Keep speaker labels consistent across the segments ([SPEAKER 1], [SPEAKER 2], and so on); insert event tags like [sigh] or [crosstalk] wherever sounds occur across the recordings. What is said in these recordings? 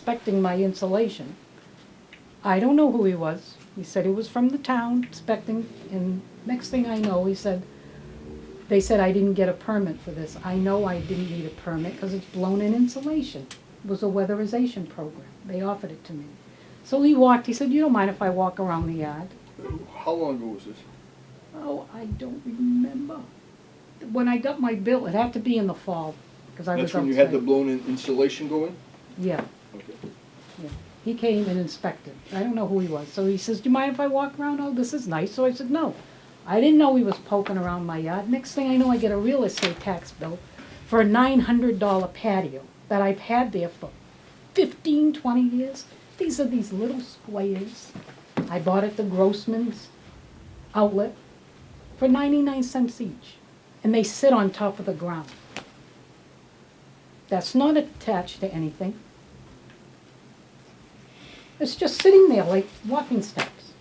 [SPEAKER 1] inspecting my insulation. I don't know who he was. He said he was from the town inspecting, and next thing I know, he said, they said I didn't get a permit for this. I know I didn't need a permit because it's blown in insulation. It was a weatherization program. They offered it to me. So he walked, he said, you don't mind if I walk around the yard?
[SPEAKER 2] How long ago was this?
[SPEAKER 1] Oh, I don't remember. When I got my bill, it had to be in the fall, because I was
[SPEAKER 2] That's
[SPEAKER 1] outside.
[SPEAKER 2] when you had the blown in insulation going?
[SPEAKER 1] Yeah.
[SPEAKER 2] Okay.
[SPEAKER 1] He came and inspected. I don't know who he was. So he says, Do you mind if I walk around? Oh, this is nice. So I said, No. I didn't know he was poking around my yard. Next thing I know, I get a real estate tax bill for a $900 patio that I've had there for 15, 20 years. These are these little squares. I bought at the Grossman's outlet for 99 cents each. And they sit on top of the ground. That's not attached to anything. It's just sitting there like walking steps.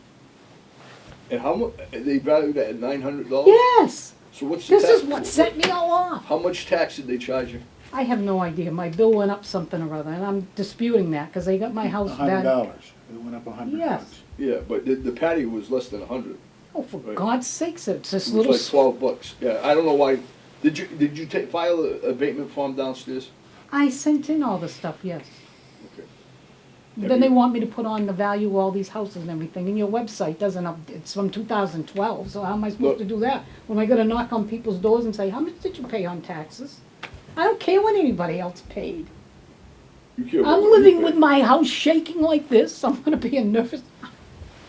[SPEAKER 2] And how mu, they valued that at nine hundred dollars?
[SPEAKER 1] Yes,
[SPEAKER 2] So what's the
[SPEAKER 1] this
[SPEAKER 2] tax?
[SPEAKER 1] is what set me all off.
[SPEAKER 2] How much tax did they charge you?
[SPEAKER 1] I have no idea. My bill went up something or other, and I'm disputing that because they got my house
[SPEAKER 3] A hundred
[SPEAKER 1] back.
[SPEAKER 3] dollars, it went up a hundred
[SPEAKER 1] Yes.
[SPEAKER 3] bucks.
[SPEAKER 2] Yeah, but the, the patio was less than a hundred.
[SPEAKER 1] Oh, for
[SPEAKER 2] Right.
[SPEAKER 1] God's sakes, it's this
[SPEAKER 2] It
[SPEAKER 1] little.
[SPEAKER 2] was like twelve bucks. Yeah, I don't know why. Did you, did you ta- file a abatement form downstairs?
[SPEAKER 1] I sent in all the stuff, yes.
[SPEAKER 2] Okay.
[SPEAKER 1] Then
[SPEAKER 2] Have
[SPEAKER 1] they
[SPEAKER 2] you-
[SPEAKER 1] want me to put on the value of all these houses and everything, and your website doesn't up, it's from two thousand twelve, so how am I
[SPEAKER 2] Look.
[SPEAKER 1] supposed to do that? When I gonna knock on people's doors and say, how much did you pay on taxes? I don't care what anybody else paid.
[SPEAKER 2] You care about
[SPEAKER 1] I'm
[SPEAKER 2] what you
[SPEAKER 1] living
[SPEAKER 2] pay.
[SPEAKER 1] with my house shaking like this. I'm gonna be a nervous.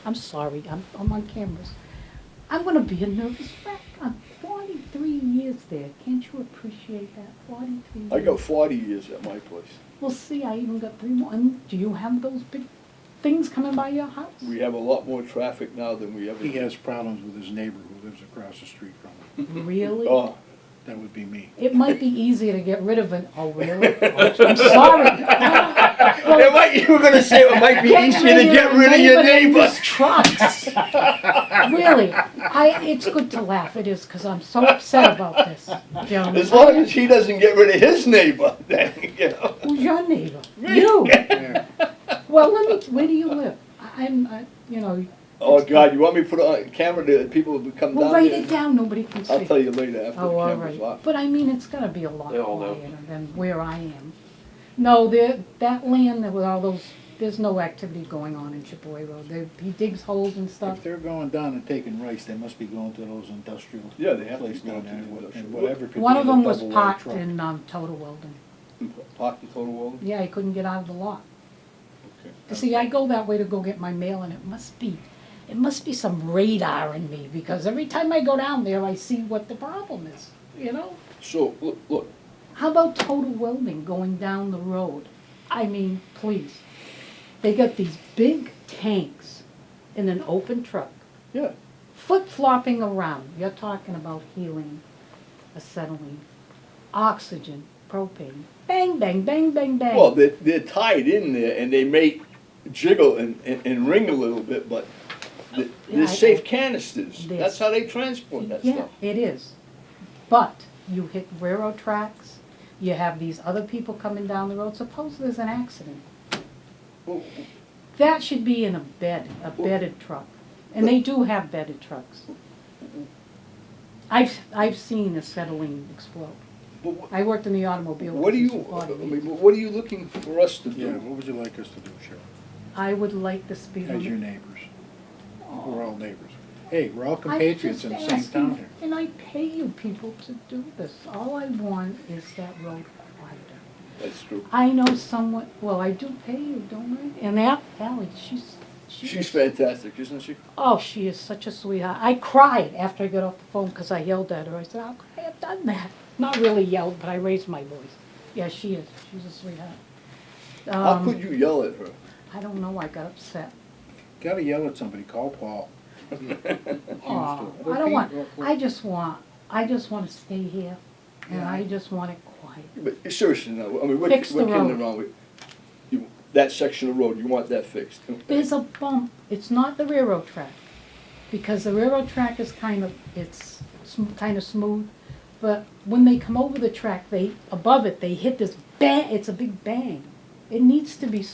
[SPEAKER 1] I'm sorry. I'm, I'm on cameras. I'm gonna be a nervous wreck. I'm 43 years there. Can't you appreciate that? 43.
[SPEAKER 2] I got
[SPEAKER 1] years.
[SPEAKER 2] forty years at my place.
[SPEAKER 1] Well, see, I even got three more. And do you have those big things coming by your house?
[SPEAKER 2] We have a lot more traffic now than we ever.
[SPEAKER 3] He has problems with his neighbor who lives across the street
[SPEAKER 2] [laughs]
[SPEAKER 3] from him.
[SPEAKER 1] Really?
[SPEAKER 2] Oh,
[SPEAKER 3] That would be me.
[SPEAKER 1] It might be easier to get rid of an. Oh,
[SPEAKER 2] [laughs]
[SPEAKER 1] really? I'm sorry. Well,
[SPEAKER 2] might, you were gonna say
[SPEAKER 1] [laughs]
[SPEAKER 2] it might be
[SPEAKER 1] neighbor's
[SPEAKER 2] [laughs]
[SPEAKER 1] trucks. really, I, it's good to laugh. It is because I'm so upset about this, gentlemen.
[SPEAKER 2] As long as he doesn't get rid of his neighbor, [laughs] then, you know.
[SPEAKER 1] Who's your neighbor?
[SPEAKER 2] [laughs]
[SPEAKER 1] You.
[SPEAKER 3] Yeah.
[SPEAKER 1] Well, let me. Where do you live? I- I'm. I, you know.
[SPEAKER 2] Oh, God, you want me to put it on camera to people who come
[SPEAKER 1] Well,
[SPEAKER 2] down
[SPEAKER 1] write
[SPEAKER 2] here?
[SPEAKER 1] it down. Nobody can see.
[SPEAKER 2] I'll tell you later after
[SPEAKER 1] Oh,
[SPEAKER 2] the
[SPEAKER 1] all
[SPEAKER 2] camera's
[SPEAKER 1] right.
[SPEAKER 2] off.
[SPEAKER 1] But I mean, it's gonna be a lot
[SPEAKER 4] They all know.
[SPEAKER 1] quieter than where I am. No, there, that land with all those, there's no activity going on in Chipaway Road. They, he digs holes and stuff.
[SPEAKER 3] If they're going down and taking rice, they must be going to those industrial
[SPEAKER 2] Yeah, they have to
[SPEAKER 3] places
[SPEAKER 2] go
[SPEAKER 3] down
[SPEAKER 2] to
[SPEAKER 3] there.
[SPEAKER 2] the
[SPEAKER 3] and
[SPEAKER 2] industrial.
[SPEAKER 3] whatever could
[SPEAKER 1] One
[SPEAKER 3] be
[SPEAKER 1] of
[SPEAKER 3] the
[SPEAKER 1] them was
[SPEAKER 3] double-wide
[SPEAKER 1] parked
[SPEAKER 3] truck.
[SPEAKER 1] in, um, Total Weldon.
[SPEAKER 2] Park the total wall?
[SPEAKER 1] Yeah, he couldn't get out of the lot.
[SPEAKER 2] Okay.
[SPEAKER 1] See, I go that way to go get my mail and it must be, it must be some radar in me because every time I go down there, I see what the problem is, you know?
[SPEAKER 2] So, look, look,
[SPEAKER 1] How about total welding going down the road? I mean, please. They got these big tanks in an open truck,
[SPEAKER 2] yeah,
[SPEAKER 1] flip flopping around. You're talking about helium, acetylene, oxygen, propane. Bang, bang, bang, bang, bang.
[SPEAKER 2] well, they're, they're tied in there and they may jiggle and, and, and ring a little bit, but th-
[SPEAKER 1] Yeah, I-
[SPEAKER 2] they're safe canisters.
[SPEAKER 1] This.
[SPEAKER 2] That's how they transport that
[SPEAKER 1] yeah,
[SPEAKER 2] stuff.
[SPEAKER 1] it is. But you hit railroad tracks. You have these other people coming down the road. Suppose there's an accident.
[SPEAKER 2] Well,
[SPEAKER 1] That should be in a bed, a bedded truck. And they do have bedded trucks. I've, I've seen acetylene explode.
[SPEAKER 2] But wh-
[SPEAKER 1] I worked in the automobile.
[SPEAKER 2] what are
[SPEAKER 1] business
[SPEAKER 2] you,
[SPEAKER 1] for
[SPEAKER 2] I
[SPEAKER 1] 40 years.
[SPEAKER 2] mean, what are you looking for us to
[SPEAKER 3] Yeah,
[SPEAKER 2] do?
[SPEAKER 3] what would you like us to do, Cheryl,
[SPEAKER 1] I would like the speed
[SPEAKER 3] as your
[SPEAKER 1] limit.
[SPEAKER 3] neighbors? We're all neighbors. Hey, we're all
[SPEAKER 1] I'm
[SPEAKER 3] compatriots
[SPEAKER 1] just
[SPEAKER 3] in the same
[SPEAKER 1] asking,
[SPEAKER 3] town here.
[SPEAKER 1] And I pay you people to do this. All I want is that road wider.
[SPEAKER 2] That's true.
[SPEAKER 1] I know someone, well, I do pay you, don't I? And that Ally, she's, she's.
[SPEAKER 2] She's fantastic, isn't she?
[SPEAKER 1] Oh, she is such a sweetheart. I cried after I got off the phone because I yelled at her. I said, How could I have done that? Not really yelled, but I raised my voice. Yeah, she is. She's a sweetheart.
[SPEAKER 2] How
[SPEAKER 1] Um,
[SPEAKER 2] could you yell at her?
[SPEAKER 1] I don't know. I got upset.
[SPEAKER 3] Gotta yell at somebody, call Paul.
[SPEAKER 2] [laughs]
[SPEAKER 1] Aw,
[SPEAKER 3] Understood.
[SPEAKER 1] I don't
[SPEAKER 3] Okay,
[SPEAKER 1] want.
[SPEAKER 3] well, well-
[SPEAKER 1] I just want. I just want to stay here, and
[SPEAKER 3] Yeah.
[SPEAKER 1] I just want it quiet.
[SPEAKER 2] But seriously, now, I mean, what, what
[SPEAKER 1] Fix the
[SPEAKER 2] can be
[SPEAKER 1] road.
[SPEAKER 2] wrong with, you, that section of road, you want that fixed?
[SPEAKER 1] There's a bump. It's not the railroad track, because the railroad track is kind of it's sm- kind of smooth, but when they come over the track, they above it they hit this bang. It's a big bang. It needs to be